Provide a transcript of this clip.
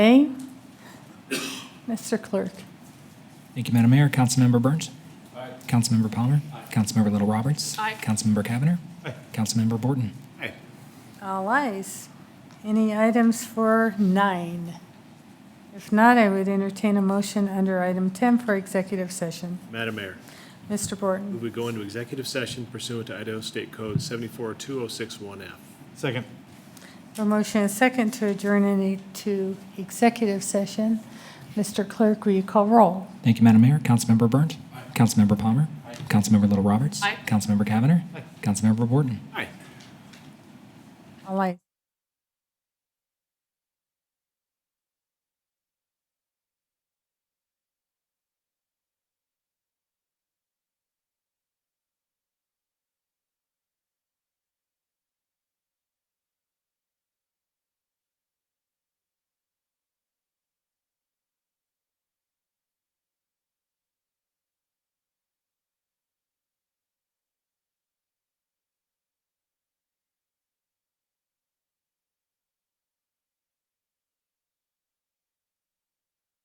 Okay. Mr. Clerk. Thank you, Madam Mayor. Councilmember Burns. Aye. Councilmember Palmer. Aye. Councilmember Little Roberts. Aye. Councilmember Cavanagh. Aye. Councilmember Borton. Aye. All eyes. Any items for nine? If not, I would entertain a motion under item 10 for executive session. Madam Mayor, Mr. Borton. move we go into executive session pursuant to Idaho State Code 742061F. Second. A motion and second to adjourn into executive session. Mr. Clerk, will you call roll? Thank you, Madam Mayor. Councilmember Burns. Aye. Councilmember Palmer. Aye. Councilmember Little Roberts. Aye. Councilmember Cavanagh. Aye. Councilmember Borton. Aye. All eyes.